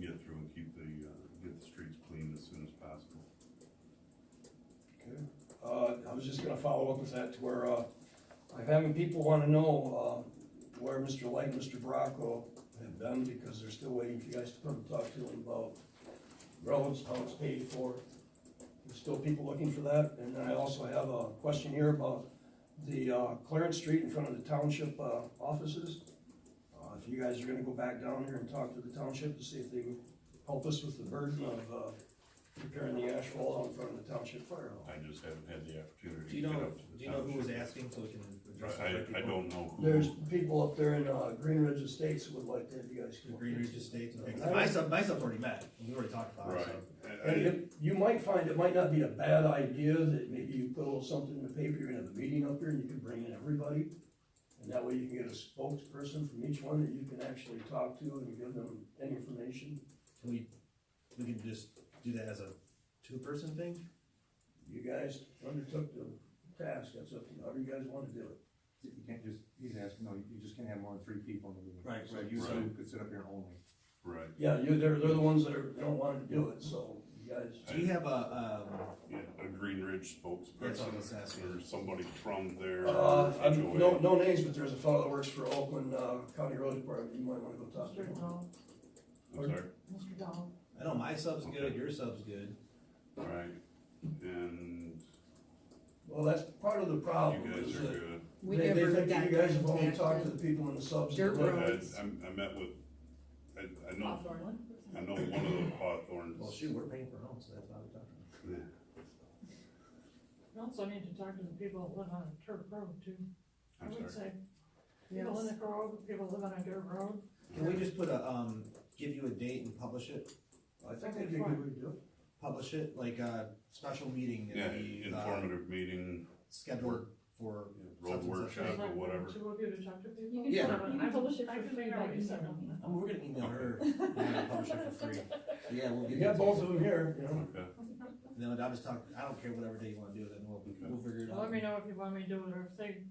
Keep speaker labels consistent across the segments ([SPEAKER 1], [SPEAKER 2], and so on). [SPEAKER 1] get through and keep the, uh, get the streets clean as soon as possible.
[SPEAKER 2] Okay. Uh, I was just gonna follow up with that to where, uh, I'm having people wanna know, uh, where Mr. Light, Mr. Bracco have been, because they're still waiting for you guys to come and talk to them about roads, how it's paid for. There's still people looking for that, and then I also have a question here about the, uh, Clarence Street in front of the township, uh, offices. Uh, if you guys are gonna go back down here and talk to the township to see if they would help us with the burden of, uh, repairing the asphalt out in front of the township fire hall.
[SPEAKER 1] I just haven't had the opportunity
[SPEAKER 3] Do
[SPEAKER 1] to
[SPEAKER 3] you
[SPEAKER 1] get
[SPEAKER 3] know,
[SPEAKER 1] up to the
[SPEAKER 3] do you know who was
[SPEAKER 1] township.
[SPEAKER 3] asking so we can address the right
[SPEAKER 1] I, I
[SPEAKER 3] people?
[SPEAKER 1] don't know who.
[SPEAKER 2] There's people up there in, uh, Green Ridge Estates who would like to have you guys
[SPEAKER 3] The
[SPEAKER 2] come. up.
[SPEAKER 3] Green Ridge Estates, okay, 'cause my stuff, my stuff's already met, and we already talked about it,
[SPEAKER 1] Right. Uh, I-
[SPEAKER 3] so.
[SPEAKER 1] I-
[SPEAKER 2] And it, you might find it might not be a bad idea that maybe you put a little something in the paper, you're gonna have a meeting up here and you can bring in everybody. And that way you can get a spokesperson from each one that you can actually talk to and give them any information.
[SPEAKER 3] Can we, we can just do that as a two-person thing?
[SPEAKER 2] You guys undertook the task, that's up to you, however you guys wanna do it.
[SPEAKER 4] You can't just, he's asking, no, you just can't have more than three people in the meeting.
[SPEAKER 3] Right,
[SPEAKER 4] So
[SPEAKER 3] right.
[SPEAKER 4] you two
[SPEAKER 1] Right.
[SPEAKER 4] could sit up here and only.
[SPEAKER 1] Right,
[SPEAKER 2] Yeah, you, they're, they're the ones that are, they don't wanna do it, so you guys,
[SPEAKER 3] Do you have a, um,
[SPEAKER 1] yeah, a Green Ridge
[SPEAKER 3] That's what I was asking.
[SPEAKER 1] spokesperson or somebody from there.
[SPEAKER 2] uh, I'm-
[SPEAKER 1] HOA.
[SPEAKER 2] no, no names, but there's a fellow that works for Oakland, uh, County Road Department, you might wanna go talk to
[SPEAKER 5] Mr.
[SPEAKER 2] him.
[SPEAKER 5] Dahl,
[SPEAKER 1] I'm sorry,
[SPEAKER 5] Mr. Dahl,
[SPEAKER 3] I know my sub's good, your sub's good,
[SPEAKER 1] all right, and
[SPEAKER 2] Well, that's part of the problem,
[SPEAKER 1] you guys
[SPEAKER 2] Oh, is
[SPEAKER 1] are
[SPEAKER 2] that
[SPEAKER 1] good.
[SPEAKER 5] we
[SPEAKER 2] They- they
[SPEAKER 5] never
[SPEAKER 2] think
[SPEAKER 5] got
[SPEAKER 2] You guys have only
[SPEAKER 5] contacted.
[SPEAKER 2] talked to the people in the subs.
[SPEAKER 5] Dirt
[SPEAKER 2] that live
[SPEAKER 5] road.
[SPEAKER 1] I,
[SPEAKER 5] Roads.
[SPEAKER 1] I'm- I met with, I, I know,
[SPEAKER 5] Hawthorne.
[SPEAKER 1] I know one of the Hawthorns.
[SPEAKER 3] well, shoot, we're paying for our own, so that's why we talked about
[SPEAKER 1] Yeah.
[SPEAKER 5] You also need to talk to the people that live on a dirt road too. I
[SPEAKER 1] I'm sorry,
[SPEAKER 5] would say, people in
[SPEAKER 6] Yes,
[SPEAKER 5] the grove, people live on a dirt road,
[SPEAKER 3] it. Can we just put a, um, give you a date and publish it,
[SPEAKER 2] I think that'd be a good way to do it.
[SPEAKER 3] publish it, like a special meeting
[SPEAKER 1] yeah,
[SPEAKER 3] that we, uh,
[SPEAKER 1] informative meeting,
[SPEAKER 3] scheduled for
[SPEAKER 1] road
[SPEAKER 3] Something such
[SPEAKER 1] workshop
[SPEAKER 3] as-
[SPEAKER 1] or
[SPEAKER 5] like
[SPEAKER 1] whatever.
[SPEAKER 5] two of you to talk to people.
[SPEAKER 6] you can,
[SPEAKER 3] Yeah.
[SPEAKER 6] put- you can publish it
[SPEAKER 5] I
[SPEAKER 6] for
[SPEAKER 5] can
[SPEAKER 6] free
[SPEAKER 5] figure
[SPEAKER 6] by
[SPEAKER 5] out
[SPEAKER 6] email.
[SPEAKER 5] something.
[SPEAKER 3] I mean, we're gonna email her, and we're gonna publish it for free. Yeah, we'll
[SPEAKER 2] You
[SPEAKER 3] get
[SPEAKER 2] got
[SPEAKER 3] it.
[SPEAKER 2] both of them here, you know?
[SPEAKER 1] Okay,
[SPEAKER 3] No, I'll just talk, I don't care whatever day you wanna do it, then we'll, we'll figure it out.
[SPEAKER 5] Let me know if you want me to do it or if they,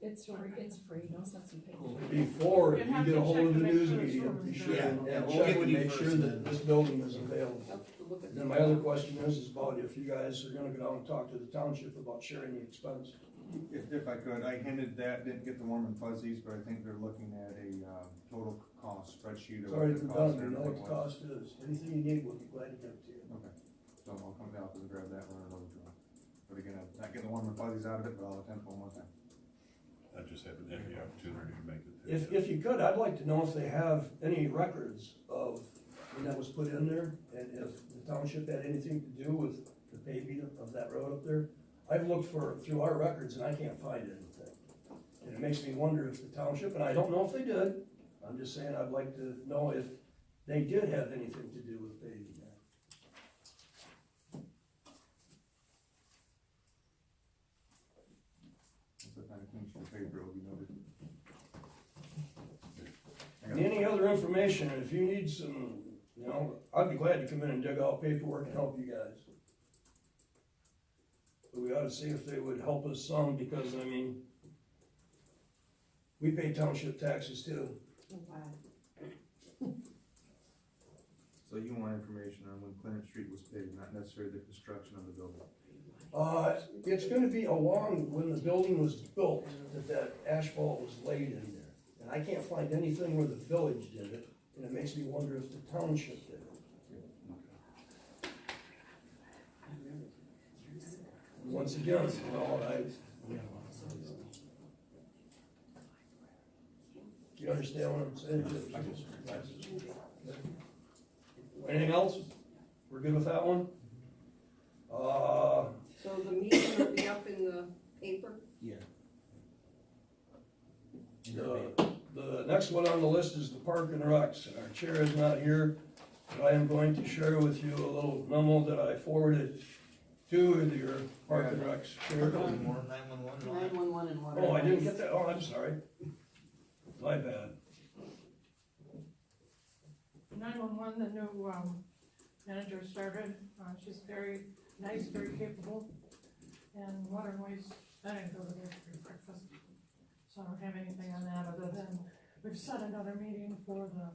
[SPEAKER 6] It's free, it's free, no sense in paying.
[SPEAKER 3] Cool.
[SPEAKER 2] Before
[SPEAKER 5] You'd
[SPEAKER 2] you
[SPEAKER 5] have
[SPEAKER 2] get
[SPEAKER 5] to
[SPEAKER 2] a hold
[SPEAKER 5] check
[SPEAKER 2] of the
[SPEAKER 5] to make
[SPEAKER 2] news
[SPEAKER 5] sure the
[SPEAKER 2] media,
[SPEAKER 5] server's
[SPEAKER 2] be
[SPEAKER 5] there.
[SPEAKER 2] sure
[SPEAKER 3] Yeah,
[SPEAKER 2] and
[SPEAKER 3] yeah, we'll
[SPEAKER 2] check
[SPEAKER 3] get
[SPEAKER 2] and
[SPEAKER 3] with you
[SPEAKER 2] make sure that
[SPEAKER 3] first then.
[SPEAKER 2] this building is available.
[SPEAKER 6] I'll have to look at
[SPEAKER 2] And then my other question is, is about if you guys are gonna go down and talk to the township about sharing the expense.
[SPEAKER 4] If, if I could, I hinted that, didn't get the warm and fuzzies, but I think they're looking at a, um, total cost spreadsheet
[SPEAKER 2] It's
[SPEAKER 4] of what
[SPEAKER 2] already
[SPEAKER 4] the
[SPEAKER 2] been
[SPEAKER 4] cost
[SPEAKER 2] done,
[SPEAKER 4] and
[SPEAKER 2] you know what
[SPEAKER 4] everything
[SPEAKER 2] the
[SPEAKER 4] was.
[SPEAKER 2] cost is. Anything you need, we'll be glad to give it to you.
[SPEAKER 4] Okay, so I'll come down and grab that one and I'll draw. But again, I'm not getting the warm and fuzzies out of it, but I'll attempt one more time.
[SPEAKER 1] I just haven't had the opportunity to make it. there
[SPEAKER 2] If,
[SPEAKER 1] yet.
[SPEAKER 2] if you could, I'd like to know if they have any records of when that was put in there, and if the township had anything to do with the paving of that road up there. I've looked for, through our records, and I can't find anything. And it makes me wonder if the township, and I don't know if they did, I'm just saying I'd like to know if they did have anything to do with paving that.
[SPEAKER 4] Once I find a clean sheet of paper, it'll be noted. I
[SPEAKER 2] And
[SPEAKER 4] got-
[SPEAKER 2] Any other information, and if you need some, you know, I'd be glad to come in and dig out paperwork and help you guys. But we ought to see if they would help us some, because, I mean, we pay township taxes too.
[SPEAKER 6] Wow.
[SPEAKER 4] So you want information on when Clarence Street was paved, not necessarily the construction of the building?
[SPEAKER 2] Uh, it's gonna be along when the building was built, that that asphalt was laid in there. And I can't find anything where the village did it, and it makes me wonder if the township did it. Once again, you know, I. You understand what I'm saying? Anything else? We're good with that one? Uh,
[SPEAKER 7] So the meeting will be up in the paper?
[SPEAKER 3] Yeah.
[SPEAKER 2] The, the next one on the list is the park and recs, and our chair is not here, but I am going to share with you a little memo that I forwarded to your park and recs chair.
[SPEAKER 3] Nine-one-one and all that.
[SPEAKER 6] Nine-one-one and whatever.
[SPEAKER 2] Oh, I didn't get that, oh, I'm sorry. My bad.
[SPEAKER 5] nine-one-one, the new, um, manager started, uh, she's very nice, very capable. And water and waste, I didn't go to there for breakfast, so I don't have anything on that other than we've set another meeting for the